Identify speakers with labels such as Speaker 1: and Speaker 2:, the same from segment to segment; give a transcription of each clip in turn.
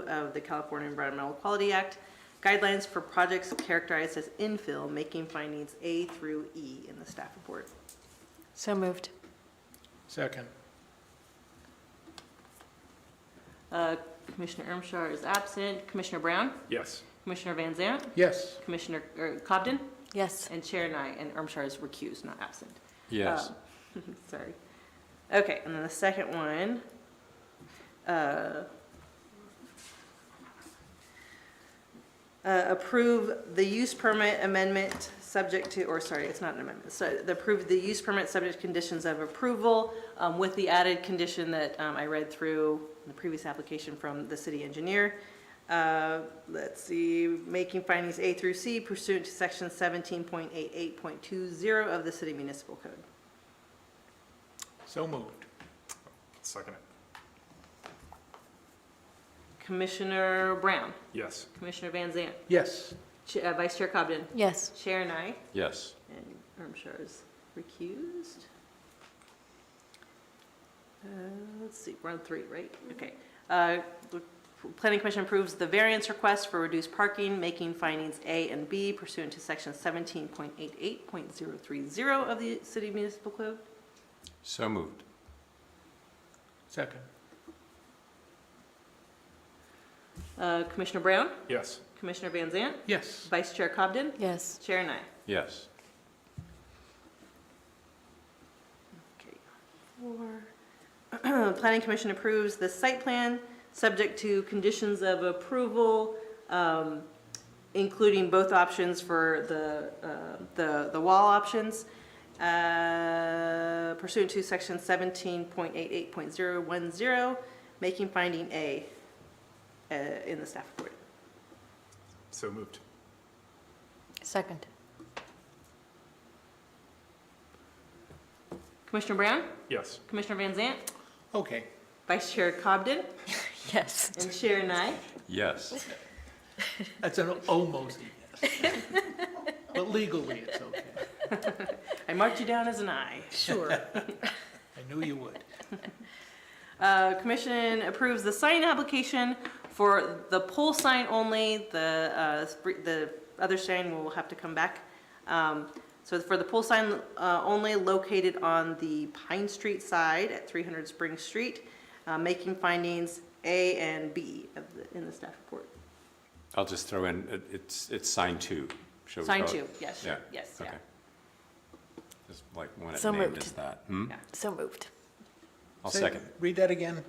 Speaker 1: of the California Environmental Quality Act, guidelines for projects characterized as infill, making findings A through E in the staff report.
Speaker 2: So moved.
Speaker 3: Second.
Speaker 1: Uh, Commissioner Ermshar is absent. Commissioner Brown?
Speaker 3: Yes.
Speaker 1: Commissioner Van Zant?
Speaker 3: Yes.
Speaker 1: Commissioner er, Cobden?
Speaker 2: Yes.
Speaker 1: And Chair and I, and Ermshar is recused, not absent.
Speaker 4: Yes.
Speaker 1: Um, Sorry. Okay, and then the second one. uh, uh, Approve the use permit amendment subject to, or sorry, it's not an amendment, so the approve the use permit subject to conditions of approval um, with the added condition that um, I read through the previous application from the city engineer. Uh, Let's see, making findings A through C pursuant to section 17.88.20 of the city municipal code.
Speaker 3: So moved.
Speaker 4: Second it.
Speaker 1: Commissioner Brown,
Speaker 4: Yes.
Speaker 1: Commissioner Van Zant,
Speaker 3: Yes.
Speaker 1: Ch- uh, Vice Chair Cobden,
Speaker 2: Yes.
Speaker 1: Chair and I,
Speaker 4: Yes.
Speaker 1: and Ermshar is recused. Uh, Let's see, we're on three, right? Okay. Uh, the Planning Commission approves the variance request for reduced parking, making findings A and B pursuant to section 17.88.030 of the city municipal code.
Speaker 4: So moved.
Speaker 3: Second.
Speaker 1: Uh, Commissioner Brown,
Speaker 4: Yes.
Speaker 1: Commissioner Van Zant,
Speaker 3: Yes.
Speaker 1: Vice Chair Cobden,
Speaker 2: Yes.
Speaker 1: Chair and I.
Speaker 4: Yes.
Speaker 1: Okay. Four. Planning Commission approves the site plan, subject to conditions of approval, um, including both options for the, uh, the, the wall options, uh, pursuant to section seventeen point eight eight point zero one zero, making finding A, uh, in the staff report.
Speaker 4: So moved.
Speaker 2: Second.
Speaker 1: Commissioner Brown,
Speaker 4: Yes.
Speaker 1: Commissioner Van Zant,
Speaker 3: Okay.
Speaker 1: Vice Chair Cobden,
Speaker 2: Yes.
Speaker 1: and Chair Nye.
Speaker 4: Yes.
Speaker 3: That's an almost yes. But legally, it's okay.
Speaker 1: I marked you down as an aye.
Speaker 2: Sure.
Speaker 3: I knew you would.
Speaker 1: Uh, Commission approves the sign application for the pole sign only. The, uh, sp- the other sign will have to come back. Um, So for the pole sign uh, only located on the Pine Street side at 300 Spring Street, uh, making findings A and B of the- in the staff report.
Speaker 4: I'll just throw in, it- it's, it's sign two. Shall we
Speaker 1: Sign
Speaker 4: call it?
Speaker 1: two, yes,
Speaker 4: Yeah.
Speaker 1: yes, yeah.
Speaker 4: Okay. Just like when it's
Speaker 2: So
Speaker 4: named
Speaker 2: moved.
Speaker 4: as that. Hmm?
Speaker 1: Yeah.
Speaker 2: So moved.
Speaker 4: I'll
Speaker 3: Say-
Speaker 4: second.
Speaker 3: Read that again.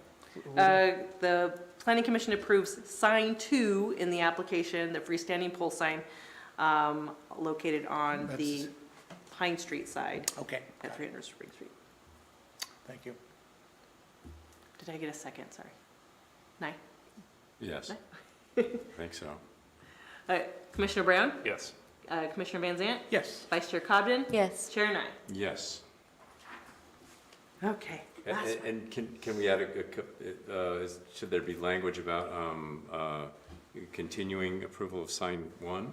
Speaker 1: Uh, The planning commission approves sign two in the application, the freestanding pole sign um, located on the
Speaker 3: That's-
Speaker 1: Pine Street side
Speaker 3: Okay.
Speaker 1: at
Speaker 3: got it.
Speaker 1: 300 Spring Street.
Speaker 3: Thank you.
Speaker 1: Did I get a second? Sorry. Nine.
Speaker 4: Yes. I think so.
Speaker 1: All right, Uh, Commissioner Brown,
Speaker 4: Yes.
Speaker 1: uh, Commissioner Van Zant,
Speaker 3: Yes.
Speaker 1: Vice Chair Cobden,
Speaker 2: Yes.
Speaker 1: Chair Nye.
Speaker 4: Yes.
Speaker 1: Okay.
Speaker 4: And-
Speaker 1: last
Speaker 4: And and can, can we add a- a, co- uh, is- should there be language about um, uh, continuing approval of sign one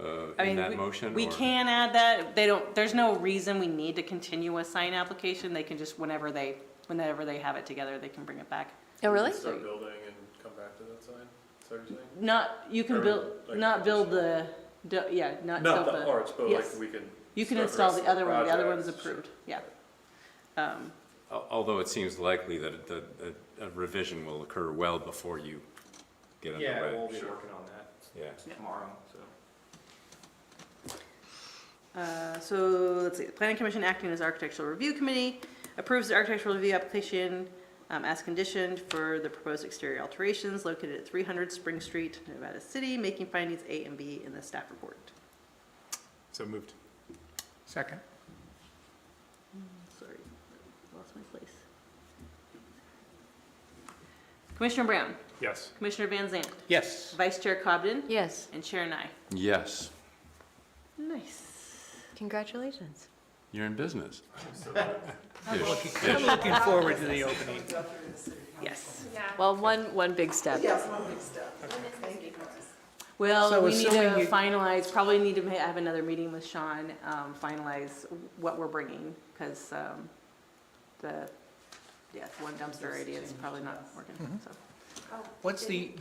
Speaker 4: uh,
Speaker 1: I
Speaker 4: in
Speaker 1: mean,
Speaker 4: that
Speaker 1: we-
Speaker 4: motion?
Speaker 1: We
Speaker 4: or-
Speaker 1: can add that. They don't, there's no reason we need to continue a sign application. They can just, whenever they, whenever they have it together, they can bring it back.
Speaker 2: Oh, really?
Speaker 5: Start building and come back to that sign, is that what you're saying?
Speaker 1: Not, you can
Speaker 5: Or,
Speaker 1: build,
Speaker 5: like,
Speaker 1: not build the, do- yeah, not build
Speaker 5: Not the
Speaker 1: the,
Speaker 5: arch, but
Speaker 1: yes.
Speaker 5: like we can.
Speaker 1: you can
Speaker 5: start
Speaker 1: install
Speaker 5: rest
Speaker 1: the
Speaker 5: of
Speaker 1: other one. The other one's
Speaker 5: project.
Speaker 1: approved, yeah. Um,
Speaker 4: Al- Although it seems likely that, it- that that a revision will occur well before you get underway.
Speaker 6: Yeah, we'll be
Speaker 4: Sure.
Speaker 6: working on that
Speaker 4: Yeah.
Speaker 6: tomorrow, so.
Speaker 1: Uh, So, let's see, the planning commission acting as architectural review committee approves the architectural review application um, as conditioned for the proposed exterior alterations located at 300 Spring Street, Nevada City, making findings A and B in the staff report.
Speaker 4: So moved.
Speaker 3: Second.
Speaker 1: Sorry, lost my place. Commissioner Brown,
Speaker 4: Yes.
Speaker 1: Commissioner Van Zandt,
Speaker 3: Yes.
Speaker 1: Vice Chair Cobden,
Speaker 2: Yes.
Speaker 1: and Chair Nye.
Speaker 4: Yes,
Speaker 1: Nice.
Speaker 2: Congratulations.
Speaker 4: you're in business.
Speaker 3: I'm
Speaker 4: Ish,
Speaker 3: looking- I'm
Speaker 4: ish.
Speaker 3: looking forward to the opening.
Speaker 1: Yes.
Speaker 2: Well, one, one big step.
Speaker 1: Well,
Speaker 3: So
Speaker 1: we need
Speaker 3: assuming
Speaker 1: to
Speaker 3: you-
Speaker 1: finalize, probably need to ma- have another meeting with Sean, um, finalize what we're bringing, because, um,
Speaker 3: Mm-hmm.
Speaker 1: the, yeah, one dumpster idea is probably not working, so.
Speaker 3: What's the,